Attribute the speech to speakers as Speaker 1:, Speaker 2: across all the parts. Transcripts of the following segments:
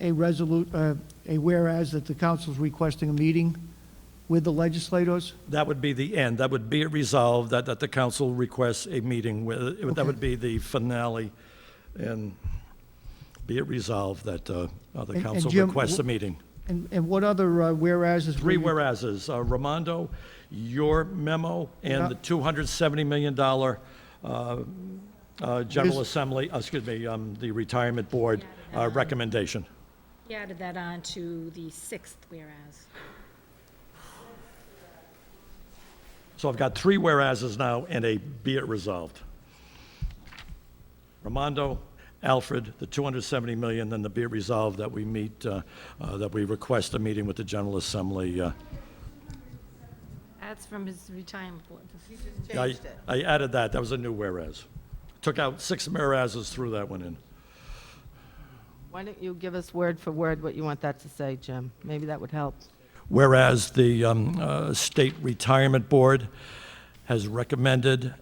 Speaker 1: a resolute, uh, a whereas that the council's requesting a meeting with the legislators?
Speaker 2: That would be the end. That would be it resolved that, that the council requests a meeting with, that would be the finale. And be it resolved that uh, uh, the
Speaker 1: and
Speaker 2: council
Speaker 1: Jim,
Speaker 2: requests a
Speaker 1: w-
Speaker 2: meeting.
Speaker 1: And, and what other uh, whereases?
Speaker 2: Three
Speaker 1: we-
Speaker 2: whereases, uh, Ramondo, your memo,
Speaker 1: Yeah.
Speaker 2: and the $270 million uh, uh, General
Speaker 1: Is-
Speaker 2: Assembly, uh, excuse me, um, the Retirement Board uh, recommendation.
Speaker 3: He added that on to the sixth whereas.
Speaker 2: So I've got three whereases now and a be it resolved. Ramondo, Alfred, the 270 million, then the be it resolved that we meet, uh, uh, that we request a meeting with the General Assembly. uh,
Speaker 3: That's from his retirement board.
Speaker 2: I I added that, that was a new whereas. Took out six whereases, threw that one in.
Speaker 4: Why don't you give us word for word what you want that to say, Jim? Maybe that would help.
Speaker 2: Whereas the um, uh, State Retirement Board has recommended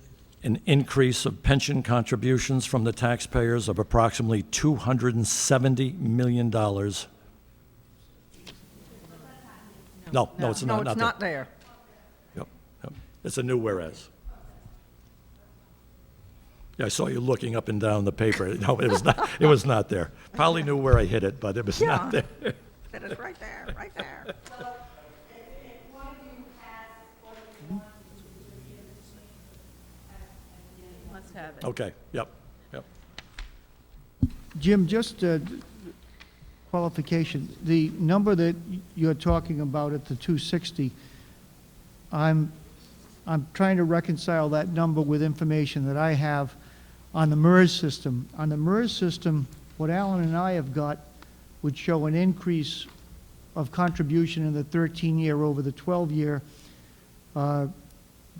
Speaker 2: an increase of pension contributions from the taxpayers of approximately $270 million. No, no, it's
Speaker 5: No,
Speaker 2: not,
Speaker 5: it's
Speaker 2: not
Speaker 5: not
Speaker 2: that.
Speaker 5: there.
Speaker 2: Yep, yep. It's a new whereas. Yeah, I saw you looking up and down the paper. No, it was not, it was not there. Probably knew where I hit it, but it was not
Speaker 5: Yeah.
Speaker 2: there.
Speaker 5: That is right there, right there.
Speaker 4: Let's have it.
Speaker 2: Okay, yep, yep.
Speaker 1: Jim, just uh, qualification, the number that you're talking about at the 260, I'm, I'm trying to reconcile that number with information that I have on the MERS system. On the MERS system, what Alan and I have got would show an increase of contribution in the 13-year over the 12-year. Uh,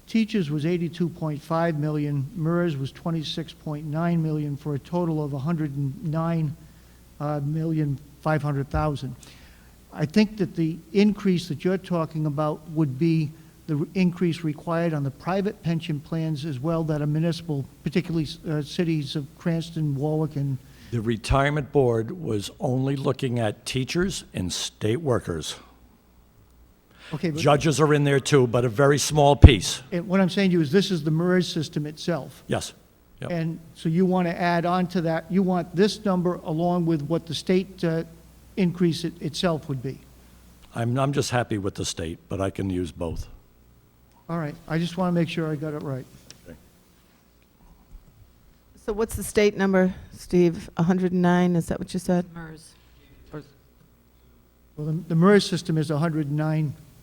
Speaker 1: Teachers was 82.5 million, MERS was 26.9 million, for a total of uh, 109,500,000. I think that the increase that you're talking about would be the re- increase required on the private pension plans as well that are municipal, particularly uh, cities of Cranston, Warwick, and,
Speaker 2: The retirement board was only looking at teachers and state workers.
Speaker 1: okay, but
Speaker 2: Judges are in there too, but a very small piece.
Speaker 1: and what I'm saying to you is this is the MERS system itself.
Speaker 2: Yes. Yep.
Speaker 1: And so you want to add on to that, you want this number along with what the state uh, increase it- itself would be.
Speaker 2: I'm, I'm just happy with the state, but I can use both.
Speaker 1: All right, I just want to make sure I got it right.
Speaker 4: So what's the state number, Steve? 109, is that what you said?
Speaker 3: MERS.
Speaker 1: Well, the- the MERS system is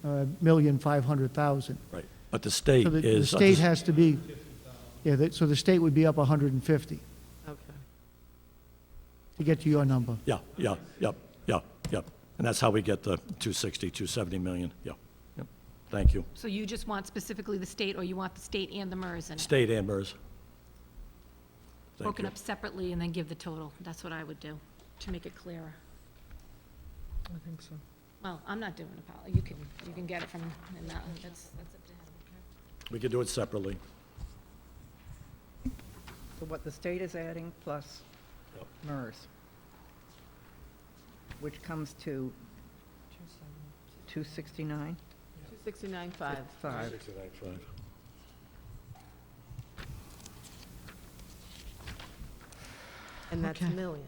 Speaker 1: uh, 109,500,000.
Speaker 2: Right. But the state
Speaker 1: So the- the
Speaker 2: is.
Speaker 1: state has to be, yeah, that- so the state would be up 150
Speaker 4: Okay.
Speaker 1: to get to your number.
Speaker 2: Yeah, yeah, yep, yep, yep. And that's how we get the 260, 270 million. Yeah. Yep. Thank you.
Speaker 3: So you just want specifically the state, or you want the state and the MERS and
Speaker 2: State and MERS. Thank
Speaker 3: broken
Speaker 2: you.
Speaker 3: up separately and then give the total? That's what I would do, to make it clearer.
Speaker 4: I think so.
Speaker 3: Well, I'm not doing a poli, you can, you can get it from, and that, that's, that's up to him.
Speaker 2: We could do it separately.
Speaker 5: So what the state is adding plus
Speaker 2: Yep.
Speaker 5: MERS, which comes to 269,
Speaker 4: 269.5.
Speaker 5: 5.
Speaker 4: And that's
Speaker 6: Okay.
Speaker 4: million.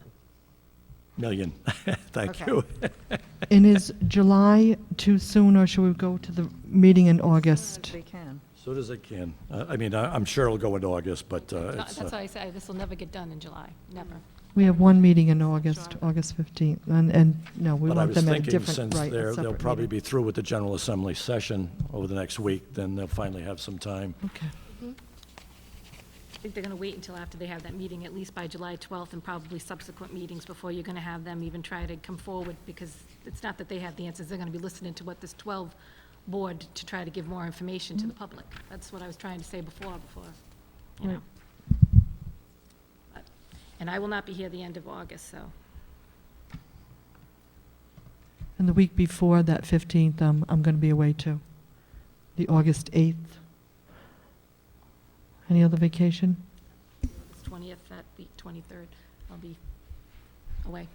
Speaker 2: Million. Thank
Speaker 4: Okay.
Speaker 2: you.
Speaker 6: And is July too soon, or should we go to the meeting in August?
Speaker 5: They can.
Speaker 2: Soon as I can. Uh, I mean, I- I'm sure it'll go in August, but uh,
Speaker 3: No,
Speaker 2: it's,
Speaker 3: That's
Speaker 2: uh,
Speaker 3: why I say, this will never get done in July, never.
Speaker 6: We have one meeting in August, August 15th, and, and, no, we
Speaker 2: but I
Speaker 6: want
Speaker 2: was
Speaker 6: them at a
Speaker 2: thinking
Speaker 6: different,
Speaker 2: since
Speaker 6: right,
Speaker 2: they're,
Speaker 6: a
Speaker 2: they'll
Speaker 6: separate
Speaker 2: probably
Speaker 6: meeting.
Speaker 2: be through with the General Assembly session over the next week, then they'll finally have some time.
Speaker 6: Okay.
Speaker 3: I think they're gonna wait until after they have that meeting, at least by July twelfth, and probably subsequent meetings before you're gonna have them even try to come forward, because it's not that they have the answers, they're gonna be listening to what this twelve board to try to give more information to the public. That's what I was trying to say before, before, you know. But- And I will not be here the end of August, so.
Speaker 6: And the week before that 15th, um, I'm going to be away too, the August 8th. Any other vacation?
Speaker 3: It's 20th, that week, 23rd, I'll be away.